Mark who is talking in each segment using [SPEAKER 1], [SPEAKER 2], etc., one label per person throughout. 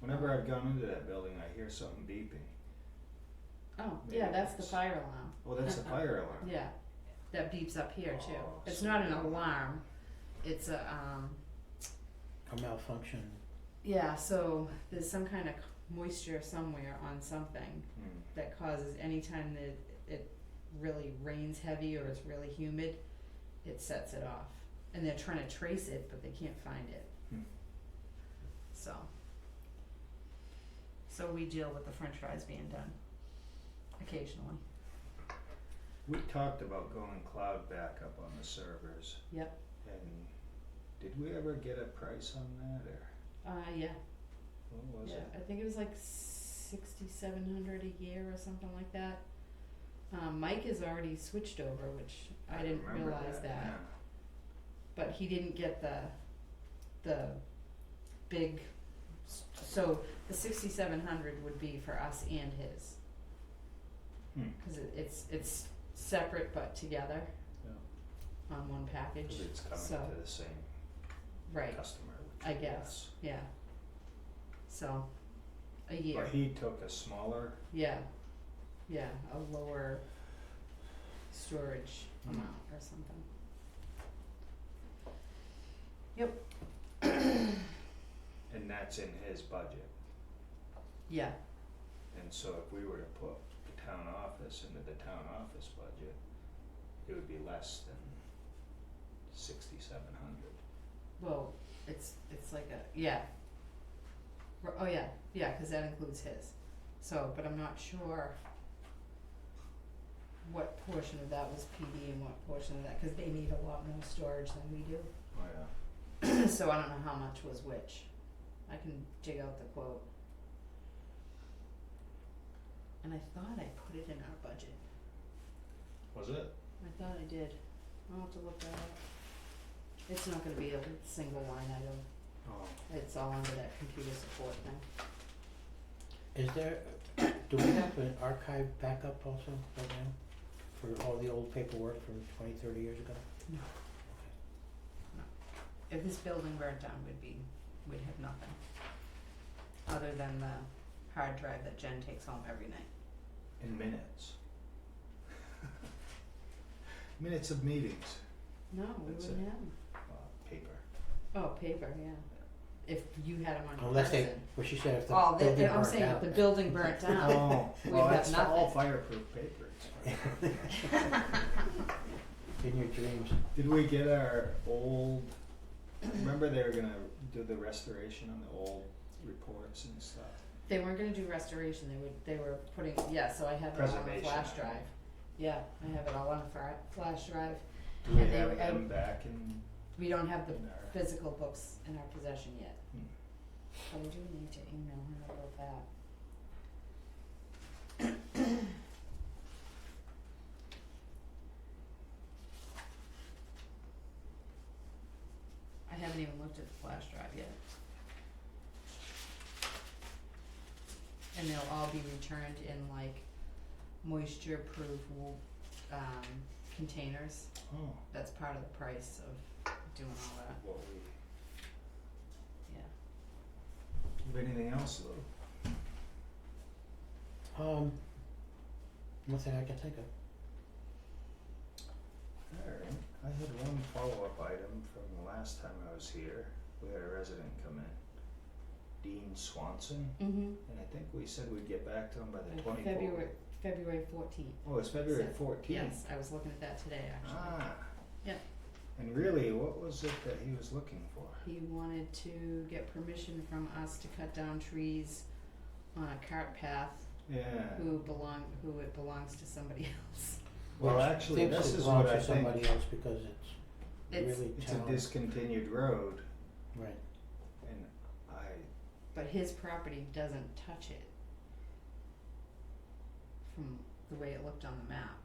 [SPEAKER 1] whenever I've gone into that building, I hear something beeping.
[SPEAKER 2] Oh,
[SPEAKER 1] Maybe
[SPEAKER 2] yeah, that's the
[SPEAKER 1] it's-
[SPEAKER 2] fire alarm.
[SPEAKER 1] Well, Oh, that's the fire alarm.
[SPEAKER 2] Yeah, that beeps up here too.
[SPEAKER 1] Oh,
[SPEAKER 2] It's
[SPEAKER 1] so-
[SPEAKER 2] not an alarm. It's a, um,
[SPEAKER 3] A malfunction.
[SPEAKER 2] yeah, so there's some kind of moisture somewhere on something
[SPEAKER 1] Hmm.
[SPEAKER 2] that causes anytime that it really rains heavy or it's really humid, it sets it off. And they're trying to trace it, but they can't find it.
[SPEAKER 1] Hmm.
[SPEAKER 2] So. So we deal with the french fries being done occasionally.
[SPEAKER 1] We talked about going cloud backup on the servers.
[SPEAKER 2] Yep.
[SPEAKER 1] And did we ever get a price on that or
[SPEAKER 2] Uh, yeah,
[SPEAKER 1] what was
[SPEAKER 2] Yeah,
[SPEAKER 1] it?
[SPEAKER 2] I think it was like sixty-seven hundred a year or something like that. Um, Mike has already switched over, which I didn't
[SPEAKER 1] remember
[SPEAKER 2] realize that, but he didn't get the, the big, s- so the sixty-seven hundred would be for us and his.
[SPEAKER 1] Hmm.
[SPEAKER 2] Cause it, it's, it's separate but together
[SPEAKER 1] Yeah.
[SPEAKER 2] on one
[SPEAKER 1] Yeah,
[SPEAKER 2] package,
[SPEAKER 1] 'cause it's coming
[SPEAKER 2] so,
[SPEAKER 1] to the same
[SPEAKER 2] right,
[SPEAKER 1] customer, which
[SPEAKER 2] I
[SPEAKER 1] is
[SPEAKER 2] guess,
[SPEAKER 1] us.
[SPEAKER 2] yeah. So, a year.
[SPEAKER 1] But he took a smaller,
[SPEAKER 2] Yeah, yeah, a lower storage
[SPEAKER 1] Mm.
[SPEAKER 2] amount or something.
[SPEAKER 1] and that's in his budget.
[SPEAKER 2] Yeah,
[SPEAKER 1] And so if we were to put the town office into the town office budget, it would be less than sixty-seven hundred.
[SPEAKER 2] well, it's, it's like a, yeah. R- Oh, yeah, yeah, cause that includes his, so, but I'm not sure what portion of that was PD and what portion of that, cause they need a lot more storage than we do,
[SPEAKER 1] Oh, yeah.
[SPEAKER 2] so I don't know how much was which. I can dig out the quote. And I thought I put it in our budget.
[SPEAKER 1] Was it?
[SPEAKER 2] I thought I did. I'll have to look that up. It's not gonna be a single line item.
[SPEAKER 1] Oh.
[SPEAKER 2] It's all under that computer support thing.
[SPEAKER 3] Is there, do we have an archive backup also right now for all the old paperwork from 20, 30 years ago?
[SPEAKER 2] No. If this building burnt down, we'd be, we'd have nothing. Other than the hard drive that Jen takes home every night.
[SPEAKER 1] In minutes. minutes of meetings.
[SPEAKER 2] No, we
[SPEAKER 1] That's
[SPEAKER 2] wouldn't have 'em.
[SPEAKER 1] Uh, paper.
[SPEAKER 2] Oh, paper, yeah. If you had them on your
[SPEAKER 3] Unless they,
[SPEAKER 2] person.
[SPEAKER 3] well, she said if the
[SPEAKER 2] Oh,
[SPEAKER 3] building
[SPEAKER 2] the, I'm
[SPEAKER 3] burnt
[SPEAKER 2] saying if
[SPEAKER 3] down.
[SPEAKER 2] the building burnt down.
[SPEAKER 1] Oh,
[SPEAKER 2] We've
[SPEAKER 1] well,
[SPEAKER 2] got
[SPEAKER 1] that's all
[SPEAKER 2] nothing.
[SPEAKER 1] fireproof paper. It's fine.
[SPEAKER 3] In your dreams.
[SPEAKER 1] Did we get our old? Remember they were gonna do the restoration on the old reports and stuff.
[SPEAKER 2] They weren't gonna do restoration, they would, they were putting, yeah, so I have it all on a
[SPEAKER 1] Preservation.
[SPEAKER 2] flash drive. Yeah, I have it all on a fra- flash drive.
[SPEAKER 1] Do we
[SPEAKER 2] And they
[SPEAKER 1] have
[SPEAKER 2] were-
[SPEAKER 1] them back in,
[SPEAKER 2] We don't have the
[SPEAKER 1] in our?
[SPEAKER 2] physical books in our possession yet,
[SPEAKER 1] Hmm.
[SPEAKER 2] but I do need to email her about that. I haven't even looked at the flash drive yet. And they'll all be returned in like moisture proof um containers,
[SPEAKER 1] Oh,
[SPEAKER 2] that's part of the price of doing all that,
[SPEAKER 1] what we,
[SPEAKER 2] yeah.
[SPEAKER 1] have anything else though?
[SPEAKER 3] Um, nothing I can think of.
[SPEAKER 1] Alright, I had one follow-up item from the last time I was here. We had a resident come in. Dean Swanson,
[SPEAKER 2] Mm-hmm.
[SPEAKER 1] and I think we said we'd get back to him by the
[SPEAKER 2] Like
[SPEAKER 1] twenty-fourth.
[SPEAKER 2] February, February fourteenth.
[SPEAKER 1] Oh, it's February
[SPEAKER 2] So-
[SPEAKER 1] fourteenth.
[SPEAKER 2] Yes, I was looking at that today, actually.
[SPEAKER 1] Ah.
[SPEAKER 2] Yeah.
[SPEAKER 1] And really, what was it that he was looking for?
[SPEAKER 2] He wanted to get permission from us to cut down trees on a cart path
[SPEAKER 1] Yeah.
[SPEAKER 2] who belong, who it belongs to somebody else.
[SPEAKER 1] Well,
[SPEAKER 3] Which
[SPEAKER 1] actually,
[SPEAKER 3] thinks
[SPEAKER 1] this
[SPEAKER 3] it
[SPEAKER 1] is what I
[SPEAKER 3] belongs to
[SPEAKER 1] think.
[SPEAKER 3] somebody else because it's
[SPEAKER 2] It's-
[SPEAKER 3] really
[SPEAKER 1] It's a
[SPEAKER 3] town.
[SPEAKER 1] discontinued road,
[SPEAKER 3] Right.
[SPEAKER 1] and I,
[SPEAKER 2] But his property doesn't touch it. From the way it looked on the map,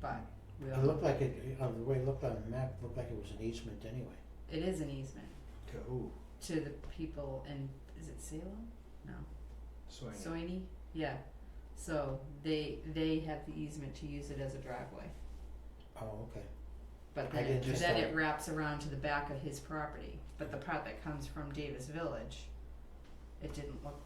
[SPEAKER 2] but we all.
[SPEAKER 3] It looked like it, on the way it looked on the map, it looked like it was an easement anyway.
[SPEAKER 2] It is an easement
[SPEAKER 1] to who?
[SPEAKER 2] to the people in, is it Salem? No.
[SPEAKER 1] So I knew-
[SPEAKER 2] Soini, yeah. So they they have the easement to use it as a driveway,
[SPEAKER 3] Oh, okay.
[SPEAKER 2] but
[SPEAKER 3] I
[SPEAKER 2] then
[SPEAKER 3] didn't
[SPEAKER 2] it,
[SPEAKER 3] just
[SPEAKER 2] then
[SPEAKER 3] know.
[SPEAKER 2] it wraps around to the back of his property. But the part that comes from Davis Village, it didn't look